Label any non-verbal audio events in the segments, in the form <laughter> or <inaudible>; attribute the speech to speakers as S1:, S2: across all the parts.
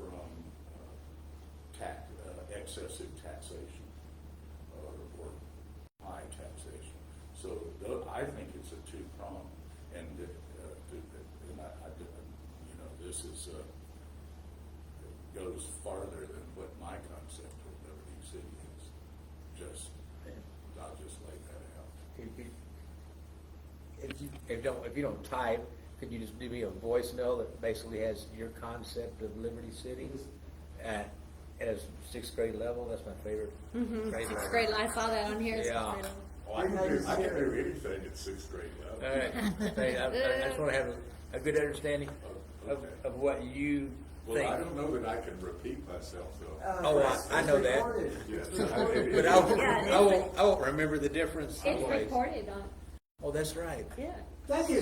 S1: uh, excessive taxation uh, or high taxation. So tho- I think it's a two-prong, and, uh, uh, and I, I, you know, this is, uh, goes farther than what my concept of Liberty City is. Just, I'll just lay that out.
S2: If you- If you, if you don't, if you don't type, could you just do me a voice mail that basically has your concept of Liberty City? At, at a sixth grade level, that's my favorite. grade
S3: Mm-hmm. Sixth
S2: level.
S3: grade, I saw that on here. sixth
S2: Yeah.
S3: grade.
S1: Oh, I can do, I can do anything at sixth grade
S2: All
S1: level.
S2: right, Hey, I, I- I just wanna have a, a good understanding of, of what you
S1: Well, I don't
S2: think.
S1: know that I can repeat myself though.
S2: Oh, I- I know that.
S1: Yes.
S2: But I, won't-
S3: Yeah, it is.
S2: I won't, I won't remember the difference.
S3: It's
S2: anyways.
S3: recorded on,
S2: Oh, that's right.
S3: yeah.
S4: Thank you.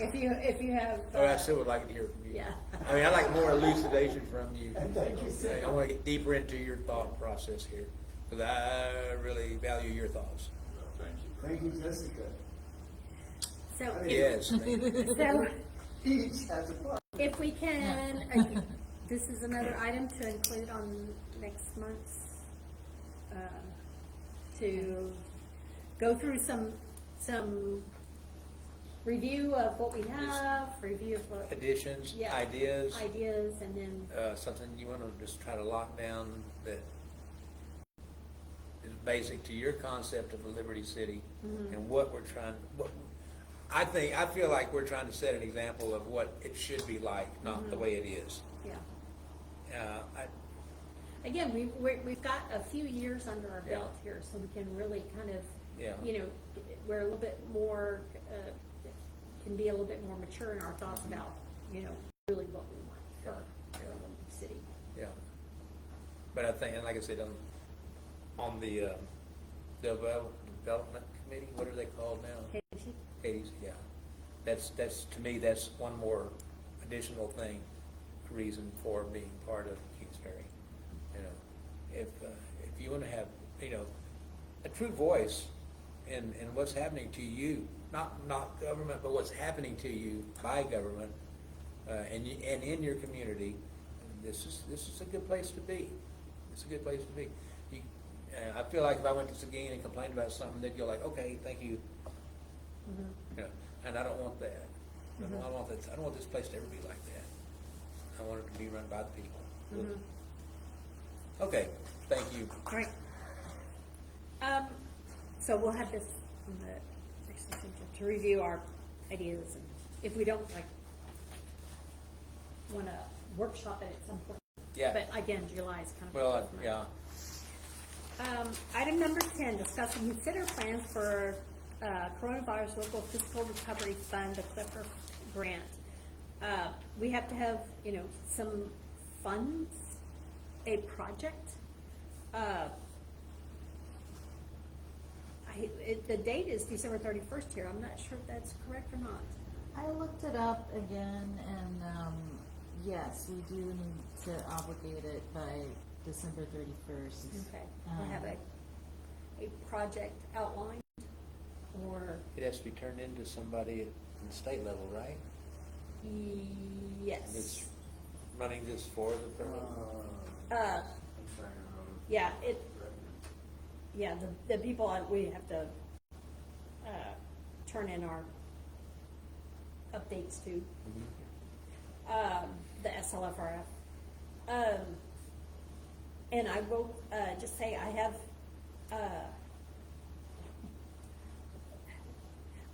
S3: If you, if you have.
S2: Oh, I still would like to hear from you.
S3: Yeah.
S2: I mean, I like more elucidation from you.
S4: Thank you, sir.
S2: I wanna get deeper into your thought process here, cause I really value your thoughts.
S1: Well, Thank you.
S4: Thank you, Jessica.
S3: So if,
S2: Yes, thank
S3: <laughs>
S2: you.
S3: so
S4: Each has a part.
S3: if we can, are you- this is another item to include on next month's, um, to go through some, some review of what we have, review of what.
S2: additions,
S3: yeah,
S2: ideas,
S3: Ideas and then,
S2: uh, something you wanna just try to lock down that is basic to your concept of a Liberty City
S3: Mm-hmm.
S2: and what we're trying, what, I think, I feel like we're trying to set an example of what it should be like, not the
S3: Mm-hmm.
S2: way it is.
S3: yeah.
S2: Uh, I,
S3: Again, we, we're, we've got a few years under our
S2: Yeah.
S3: belt here, so we can really kind of,
S2: Yeah.
S3: you know, we're a little bit more, uh, can be a little bit more mature in our thoughts
S2: Mm-hmm.
S3: about, you know, really what we want for our
S2: Yeah.
S3: city.
S2: Yeah. But I think, and like I said, on, on the, uh, devel- development committee, what are they called now?
S3: Casey?
S2: Katie's, yeah. That's, that's, to me, that's one more additional thing, reason for being part of Kingsbury. You know, if, uh, if you wanna have, you know, a true voice in, in what's happening to you, not, not government, but what's happening to you by government, uh, and you, and in your community, this is, this is a good place to be. It's a good place to be. You, uh, I feel like if I went to Seguin and complained about something, they'd go like, okay, thank you,
S3: Mm-hmm.
S2: you know, and I don't want that. I don't, I don't want that, I don't want this place to ever be like that. I want it to be run by the people.
S3: Mm-hmm.
S2: Okay, thank you.
S3: Right. Um, so we'll have this in the next session to- to review our ideas and if we don't like wanna workshop it at some point.
S2: Yeah,
S3: But again, July is kind of.
S2: well, I- yeah,
S3: Um, item number ten, discuss and consider plans for, uh, coronavirus local fiscal recovery fund, the Clipper grant. Uh, we have to have, you know, some funds, a project, uh, I, it, the date is December thirty-first here, I'm not sure if that's correct or not.
S5: I looked it up again, and um, yes, we do need to obligate it by December Um, 31st.
S3: Okay, I have a, a project outlined, or,
S2: it has to be turned into somebody at the state level, right?
S3: yes.
S2: That's running this for the,
S3: Uh, yeah, it, yeah, the, the people, uh, we have to, uh, turn in our updates to, um, the SLFRF. Um, and I will, uh, just say I have, uh,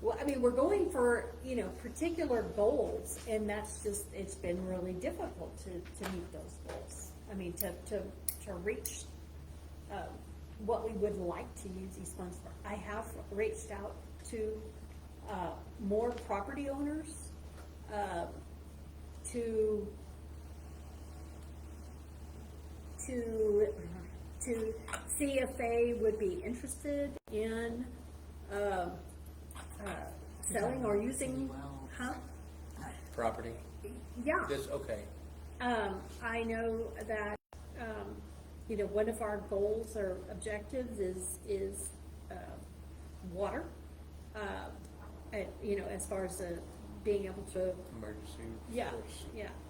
S3: well, I mean, we're going for, you know, particular goals, and that's just, it's been really difficult to, to meet those goals. I mean, to, to, to reach, um, what we would like to use these funds for. I have reached out to, uh, more property owners, uh, to, to, to see if they would be interested in, um, uh, selling or using, huh?
S2: property,
S3: Yeah.
S2: this, okay,
S3: Um, I know that, um, you know, one of our goals or objectives is, is, uh, water. Uh, and, you know, as far as, uh, being able to,
S2: emergency.
S3: yeah,
S2: force.
S3: yeah,